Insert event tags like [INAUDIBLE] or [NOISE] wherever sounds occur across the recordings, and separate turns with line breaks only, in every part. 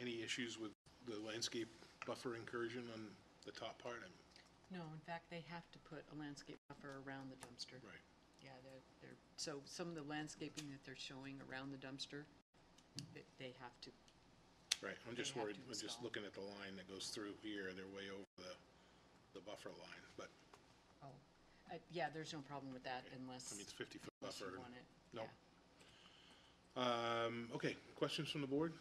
Any issues with the landscape buffer incursion on the top part? I'm-
No, in fact, they have to put a landscape buffer around the dumpster.
Right.
Yeah, they're, they're, so some of the landscaping that they're showing around the dumpster, that they have to,
Right, I'm just
They have
worried,
to
I'm just
install.
looking at the line that goes through here, they're way over the, the buffer line, but,
oh, uh, yeah, there's no problem with that unless,
I mean, it's fifty foot
unless you
buffer.
want it.
No.
Yeah.
Um, okay, questions from the board?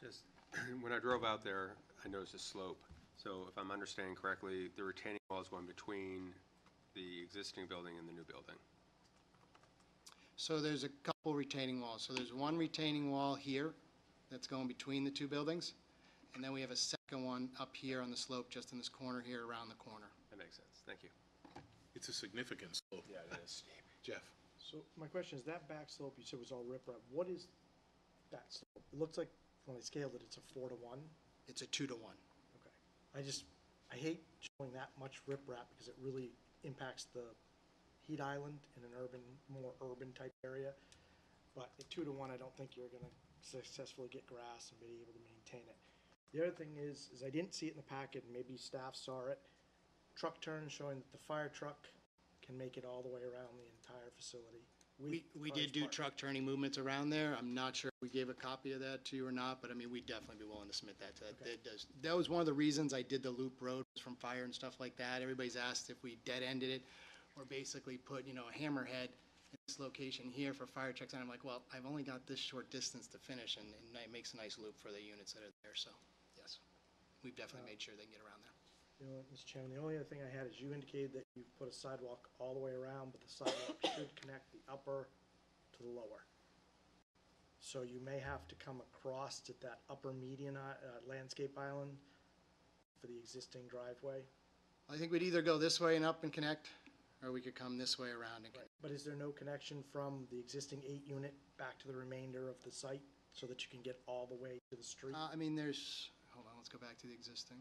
Just, [CLEARS THROAT] when I drove out there, I noticed a slope. So if I'm understanding correctly, the retaining wall is going between the existing building and the new building.
So there's a couple retaining walls. So there's one retaining wall here that's going between the two buildings, and then we have a second one up here on the slope, just in this corner here, around the corner.
That makes sense. Thank you.
It's a significant slope.
Yeah, it is.
Jeff?
So my question is, that back slope you said was all riprap, what is that slope? It looks like, when I scaled it, it's a four to one.
It's a two to one.
Okay. I just, I hate showing that much riprap because it really impacts the heat island in an urban, more urban type area. But at two to one, I don't think you're gonna successfully get grass and be able to maintain it. The other thing is, is I didn't see it in the packet, and maybe staff saw it. Truck turn showing that the fire truck can make it all the way around the entire facility. with
We, we
cars
did do
parked.
truck turning movements around there. I'm not sure if we gave a copy of that to you or not, but I mean, we'd definitely be willing to submit that. to- that- That does, that was one of the reasons I did the loop road was from fire and stuff like that. Everybody's asked if we dead-ended it or basically put, you know, a hammerhead in this location here for fire checks. And I'm like, well, I've only got this short distance to finish and, and it makes a nice loop for the units that are there. So, yes, we've definitely made sure they can get around there.
You know, Mr. Chairman, the only other thing I had is you indicated that you've put a sidewalk all the way around, but the sidewalk [COUGHS] should connect the upper to the lower. So you may have to come across at that upper median i- uh, landscape island for the existing driveway.
I think we'd either go this way and up and connect, or we could come this way around and connect.
But is there no connection from the existing eight unit back to the remainder of the site so that you can get all the way to the street?
Uh, I mean, there's, hold on, let's go back to the existing.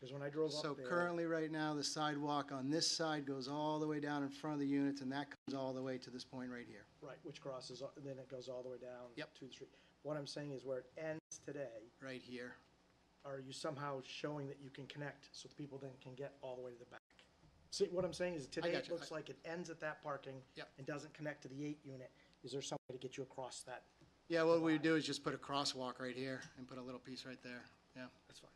Because when I drove up
So
there-
currently, right now, the sidewalk on this side goes all the way down in front of the units, and that comes all the way to this point right here.
Right, which crosses, a- then it goes all the way down
Yep.
to the street. What I'm saying is where it ends today,
Right here.
are you somehow showing that you can connect so the people then can get all the way to the back? See, what I'm saying is today it
gotcha.
looks
I-
like it ends at that parking
Yep.
and doesn't connect to the eight unit. Is there some way to get you across that?
Yeah, what we would do is just put a crosswalk right here and put a little piece right there. Yeah.
That's fine.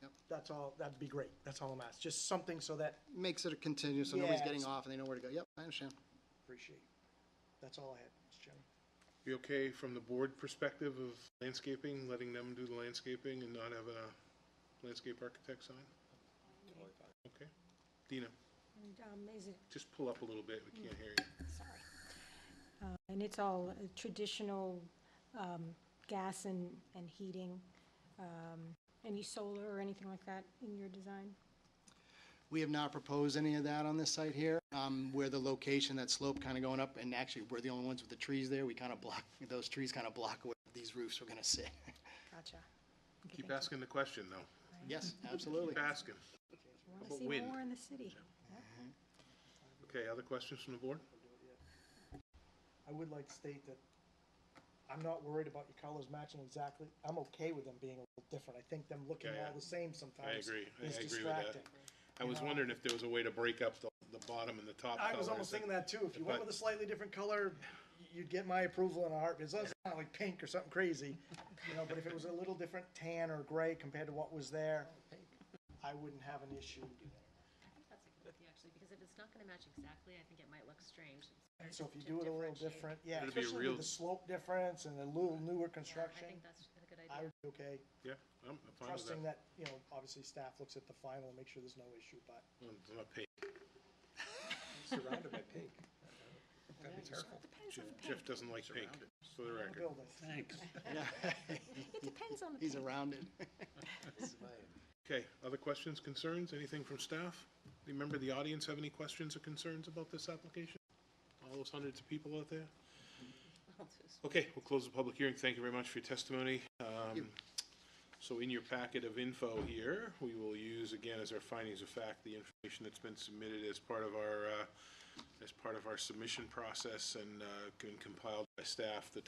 Yep.
That's all, that'd be great. That's all I'm asking. Just something so that,
Makes it a continuous, so nobody's
Yeah,
getting
it's-
off and they know where to go. Yep, I understand.
appreciate. That's all I had, Mr. Chairman.
You okay from the board perspective of landscaping, letting them do the landscaping and not have a landscape architect sign? Okay. Dina,
And, um, is it,
just pull up a little bit, we can't hear you.
sorry. Uh, And it's all uh, traditional um, gas and, and heating, um, any solar or anything like that in your design?
We have not proposed any of that on this site here. Um, where the location, that slope kind of going up, and actually, we're the only ones with the trees there. We kind of block, those trees kind of block where these roofs are gonna sit. [LAUGHS]
Gotcha. Okay,
Keep
thank
asking the question, though.
Yes, absolutely.
Keep asking.
you. I wanna
about
see
wind?
more in the city.
Okay, other questions from the board?
I would like to state that I'm not worried about your colors matching exactly. I'm okay with them being a little different. I think them looking
Yeah, yeah.
all the same sometimes
agree. I
is
agree with that.
distracting.
I was wondering if there was a way to break up the, the bottom and the top
I was
colors.
almost thinking that too. If you went
But-
with a slightly different color, y- you'd get my approval in a heartbeat. As long as it's not like pink or something crazy, you know, but if it was a little different tan or gray compared to what was there, I wouldn't have an issue.
That's a good idea, actually, because if it's not gonna match exactly, I think it might look strange. It's better
So if you
to
do it a little
differentiate.
different, yeah,
It'd be a
especially
real-
with the slope difference and a little newer
Yeah, I
construction,
think that's a good
I
idea.
would be okay.
Yeah, I'm I'm fine with
Trusting
that.
that, you know, obviously staff looks at the final and make sure there's no issue, but
It's not paid.
Surrounded by pink. That'd be terrible.
Depends
Jeff-
on the paint.
Jeff doesn't like pink, for the
the
record.
building.
[LAUGHS]
It depends on the
He's
paint.
around it.
Okay, other questions, concerns, anything from staff? Do you Remember, the audience have any questions or concerns about this application? All those hundreds of people out there? Okay, we'll close the public hearing. Thank you very much for your testimony. Um, So in your packet of info here, we will use again as our findings of fact, the information that's been submitted as part of our uh, as part of our submission process and uh, can compiled by staff, the